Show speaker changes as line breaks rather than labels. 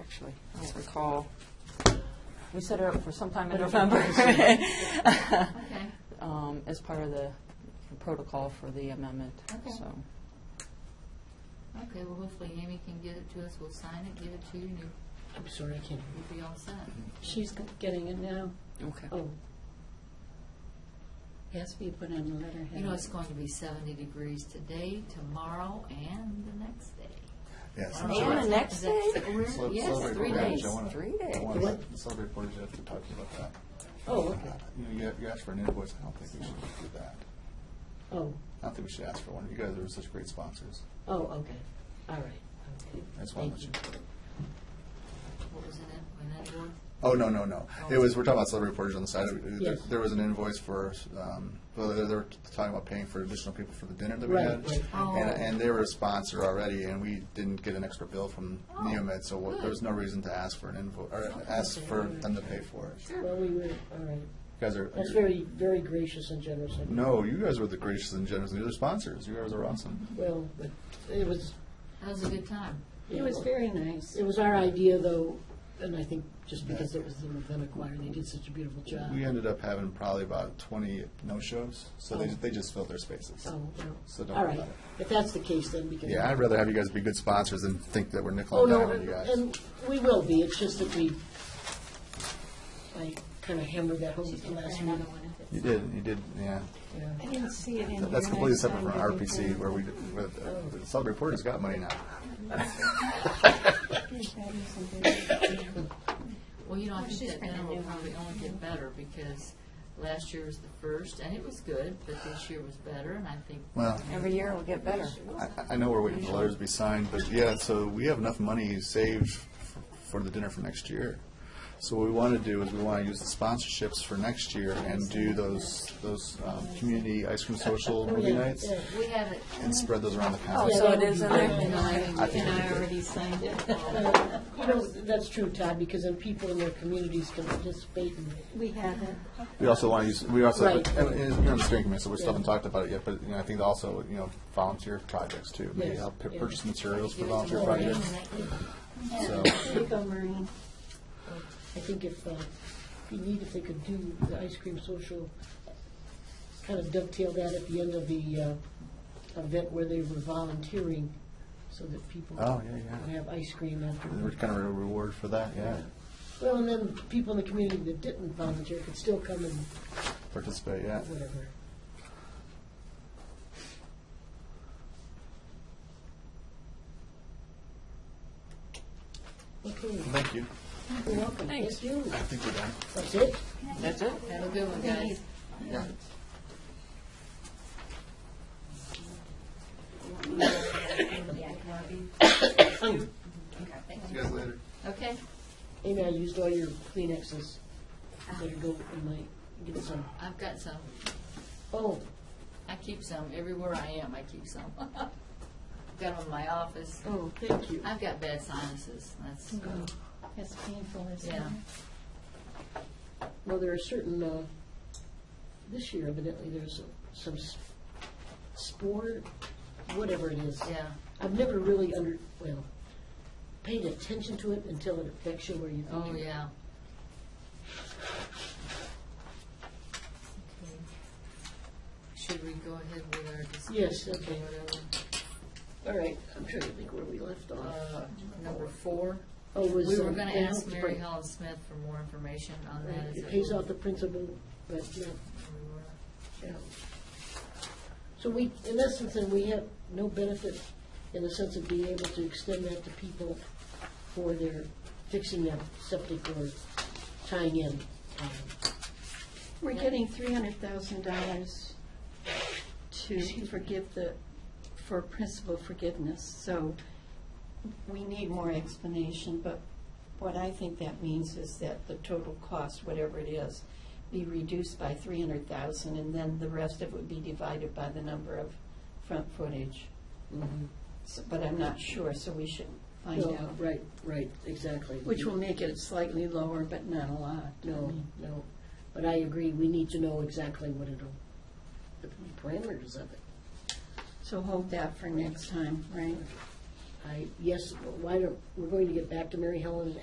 actually, I don't recall. We set her up for sometime in November
Okay,
um, as part of the protocol for the amendment,
Okay.
so.
okay, well, hopefully Amy can get it to us, we'll sign it, give it to you, and you'll-
I'm sorry, I can't.
you'll be all set.
She's g- getting it now.
Okay.
Oh. Yes, we put on the letterhead.
You know, it's going to be seventy degrees today, tomorrow, and the next day.
Yes.
And the next day?
We're-
Cele-
Yes,
celebrate
three
Portage,
days.
I wanna-
Three days.
I want to celebrate Portage, I have to talk to you about that.
Oh, okay.
You know, you- you asked for an invoice, I don't think we should do that.
Oh,
I don't think we should ask for one. You guys are such great sponsors.
oh, okay. All right. Okay.
I just want to
Thank
let you.
you.
What was in it, when that board?
Oh, no, no, no. It was, we're talking about celebrate Portage on the side. There-
Yes.
There was an invoice for, um, well, they they were talking about paying for additional people for the dinner that we
Right,
had.
right.
Oh.
And, and they were a sponsor already, and we didn't get an extra bill from
Oh,
Neomed, so what- there
good.
was no reason to ask for an invoice, or ask for them to pay for it. You
Well, we were, all right.
guys are.
That's very, very gracious and generous. of you.
No, you guys were the gracious and generous. You're the sponsors. You guys are awesome.
Well, but it was,
That was a good time.
It was very nice. It was our idea, though, and I think just because it was the Ravenna Choir, they did such a beautiful job.
We ended up having probably about 20 no-shows, so they,
Oh.
they just filled their spaces.
Oh, well.
So don't
All
worry
right.
about it.
If that's the case, then we can.
Yeah, I'd rather have you guys be good sponsors than think that we're nickel
Oh,
and
no,
diming you guys.
and we will be. It's just that we, I kind of hammered that home at the last
Another
minute.
one if it's-
You did, you did, yeah.
Yeah.
I didn't see it in here.
That's completely
Next
separate
time
from
I can
RPC where we, where the-
Oh.
the Celebrate Portage's got money now.
do that or something.
Well, you know, I think
she's
that
bringing
dinner will
new
probably only get better, because last year was the first, and it was good, but this year was better, and I think
Well,
Every year it'll get better.
I, I know we're waiting for letters to be signed, but yeah, so we have enough money saved f- for the dinner for next year. So what we want to do is we want to use the sponsorships for next year and do those, those, um, community ice cream social movie
Oh, yeah,
nights
yeah.
we have it.
and spread those around the
Oh,
county.
so it is in
And
there?
I-
I think
And
we
I
did.
already signed it.
Uh, You know, that's true, Todd, because then people in their communities can participate and
We have it.
We also want to use, we also, and,
Right.
and you're on the steering committee, so we still haven't talked about it yet, but, you know, I think also, you know, volunteer projects too. Maybe
Yes.
help pu-
Yeah.
purchase materials for
Give us a
volunteer
little
projects.
thing that
So-
There you go, Maureen.
I think if, uh, if you need, if they could do the ice cream social, kind of dovetail that at the end of the uh, event where they were volunteering, so that people
Oh, yeah, yeah.
can have ice cream
And We're
afterward.
kind of a reward for that, yeah,
Well, and then people in the community that didn't volunteer could still come and
participate, yeah.
whatever. Okay,
Thank you.
you're welcome. Thank you.
I think we're done.
That's it?
That's it?
Have a good one, guys.
Yeah. See you guys later.
Okay.
Amy, I used all your Kleenexes.
Ah.
Better go and like get some.
I've got some.
Oh,
I keep some everywhere I am. I keep some. got them in my office.
oh, thank you.
I've got bad sinuses. That's
Mm-hmm.
As painful as
yeah.
Well, there are certain, uh, this year evidently there's some s- spore, whatever it is.
Yeah.
I've never really under, well, paid attention to it until it affects you where you think.
Oh
you're-
yeah. Okay. Should we go ahead with our discussion?
Yes,
or
okay.
whatever?
All right, I'm trying to think where we left off.
Uh, number four.
Oh, was.
We were
um,
going to
yeah,
ask Mary
right.
Helen Smith for more information on that.
Right,
Is
It
that
pays
what
off the principal, but not
we were-
Yeah. So we, in essence, then we have no benefit in the sense of being able to extend that to people for their fixing their septic or tying in. Um,
Uh,
We're getting three hundred thousand dollars to forgive the, for principal forgiveness, so we need more explanation, but what I think that means is that the total cost, whatever it is, be reduced by three hundred thousand, and then the rest of it would be divided by the number of front footage. So- But I'm not sure, so we should find
no,
out,
Right, right, exactly.
which will make it slightly lower, but not a lot. I
No,
mean,
no, but I agree, we need to know exactly what it'll, the parameters of it.
So hold that for next time, right?
I, yes, why don't, we're going to get back to Mary Helen